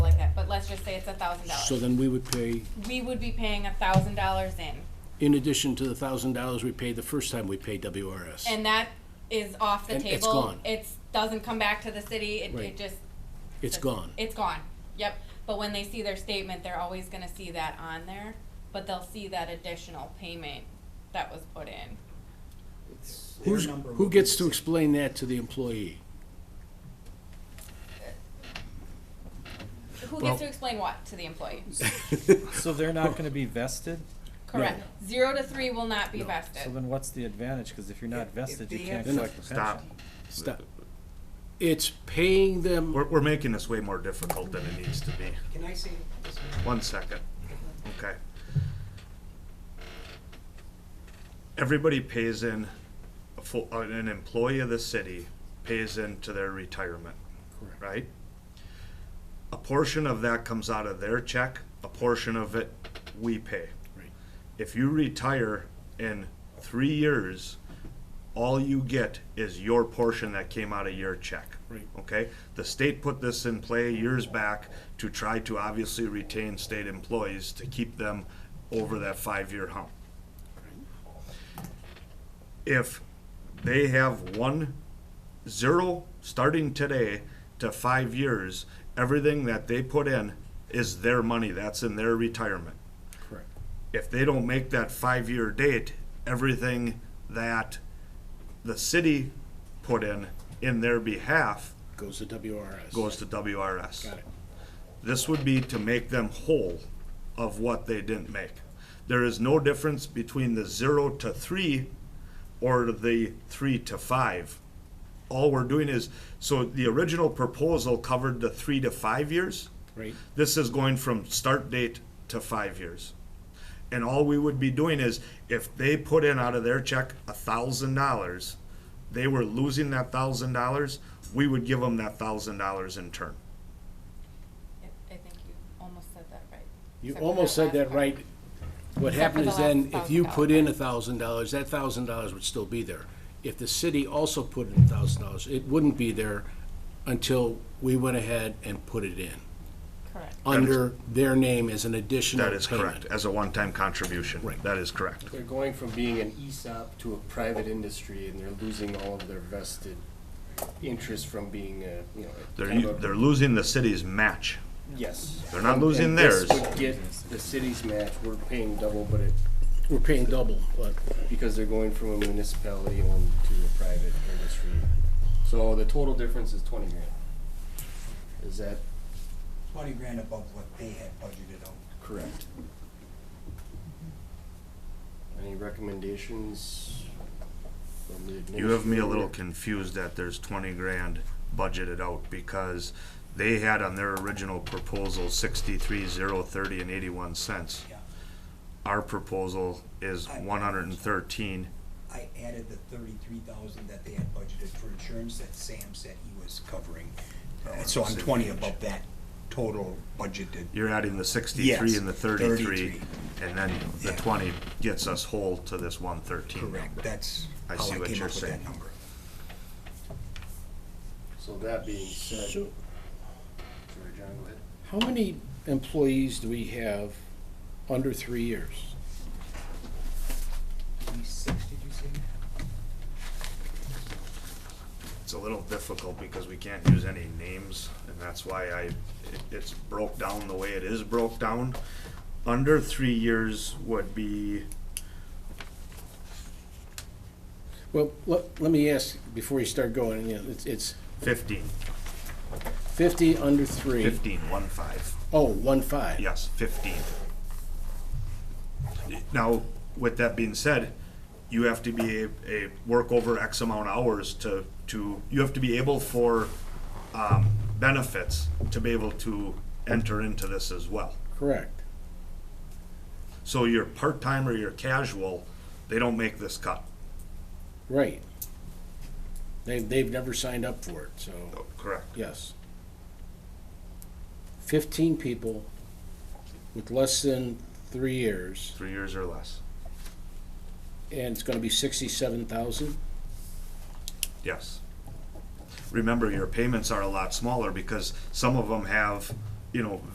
say it's a thousand So dollars. then we would pay, We would be paying a thousand dollars in, in addition to the thousand dollars we paid the first time we paid WRS. and that is off the And table. it's gone. It's- doesn't come back to the city, it, Right. it just. It's gone. It's gone, yep, but when they see their statement, they're always gonna see that on there, but they'll see that additional payment that was put in. It's their Who's, number who would gets be to six- explain that to the employee? Who Well- gets to explain what to the employee? So they're not gonna be vested? Correct, zero to three will not be So vested. then what's the advantage? Cause if you're not If- if vested, you they can't have- collect the pension. Stop. Stop. It's paying them We're, we're making this way more difficult than it needs to be. Can I say this? One second. Okay. Everybody pays in, a full, uh, an employee of the city pays into their retirement, right? A portion of that comes out of their check, a portion of it we pay. Right. If you retire in three years, all you get is your portion that came out of your check. Right. Okay? The state put this in play years back to try to obviously retain state employees to keep them over that five-year hump. If they have one, zero, starting today to five years, everything that they put in is their money, that's in their retirement Correct. if they don't make that five-year date, everything that the city put in, in their behalf, Goes to WRS. goes to WRS. Got it. This would be to make them whole of what they didn't make. There is no difference between the zero to three or the three to five. All we're doing is, so the original proposal covered the three to five years. Right. This is going from start date to five years. And all we would be doing is, if they put in out of their check a thousand dollars, they were losing that thousand dollars, we would give them that thousand dollars in turn. I I think you almost said that right. You Except for almost said last that part. right. What Except for happened the is then, last if you $1,000. put in a thousand dollars, that thousand dollars would still be there. If the city also put in a thousand dollars, it wouldn't be there until we went ahead and put it in, Correct. under their name as an additional payment. That is correct, as a one-time contribution. Right. That is correct. They're going from being an E ESOP to a private industry, and they're losing all of their vested interest from being a, you know, a They're, kind u- of a- they're losing the city's match. Yes. they're not losing And this theirs. would get the city's match, we're paying double, but it, We're paying double, but because they're going from a municipality owned to a private industry. So the total difference is twenty grand. Is that Twenty grand above what they had budgeted out. correct? Any recommendations from the administrator? You have me a little confused that there's twenty grand budgeted out because they had on their original proposal sixty-three, zero, thirty, and eighty-one cents. Yeah. Our proposal is one hundred and thirteen. I added the thirty-three thousand that they had budgeted for insurance that Sam said he was covering. Oh, Uh, So I'm twenty above that total budgeted. You're adding the sixty-three Yes, and the thirty-three, 33. and then the Yeah. twenty gets us whole to this one thirteen Correct, number. that's I how see I what came you're up with saying. that number. So that being said, sorry, So- John, go ahead. how many employees do we have under three years? Twenty-six, did you say? It's a little difficult because we can't use any names, and that's why I, it- it's broke down the way it is broke down. Under three years would be Well, let, let me ask, before you start going, you know, it's, it's fifteen. fifty under three. Fifteen, one five, Oh, one five. yes, fifteen. Now, with that being said, you have to be a, a work over X amount of hours to, to, you have to be able for, um, benefits to be able to enter into this as well. Correct. So your part-time or your casual, they don't make this cut, Right. They've, they've never signed up for it, so, correct? yes. Fifteen people with less than three years, Three years or less, and it's gonna be sixty-seven thousand? yes. Remember, your payments are a lot smaller because some of them have, you know,